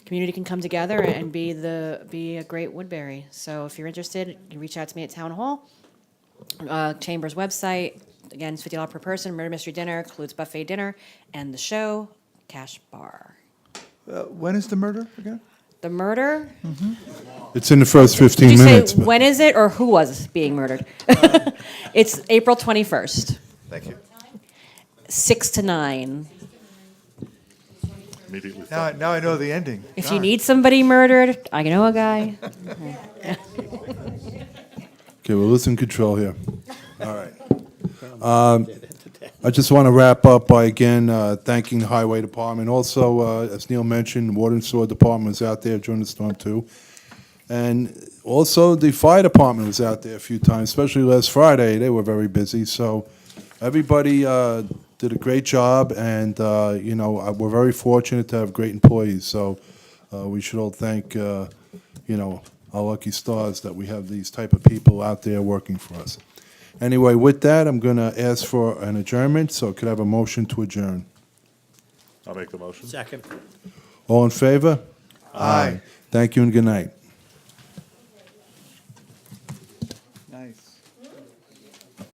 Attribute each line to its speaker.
Speaker 1: community can come together and be the, be a great Woodbury. So if you're interested, you can reach out to me at Town Hall, uh, Chamber's website. Again, it's fifty dollars per person, murder mystery dinner, includes buffet dinner, and the show, cash bar.
Speaker 2: Uh, When is the murder again?
Speaker 1: The murder,
Speaker 3: It's in the first
Speaker 1: did
Speaker 3: 15
Speaker 1: you say,
Speaker 3: minutes. but-
Speaker 1: when is it or who was being murdered? It's April twenty-first,
Speaker 2: Thank you.
Speaker 1: six to nine.
Speaker 4: Immediately.
Speaker 2: Now, I- now I know the ending.
Speaker 1: If you need somebody murdered, I know a guy.
Speaker 3: Okay, well, let's in control here. All right. Um, I just want to wrap up by again uh, thanking the Highway Department. Also, uh, as Neil mentioned, Water and Sewer Department was out there during the storm too. And also, the Fire Department was out there a few times, especially last Friday. They were very busy, so everybody uh, did a great job. And, uh, you know, I- we're very fortunate to have great employees, so uh, we should all thank, uh, you know, our lucky stars that we have these type of people out there working for us. Anyway, with that, I'm going to ask for an adjournment, so could I have a motion to adjourn?
Speaker 4: I'll make the motion.
Speaker 5: Second.
Speaker 3: All in favor?
Speaker 2: Aye.
Speaker 3: Thank you and good night.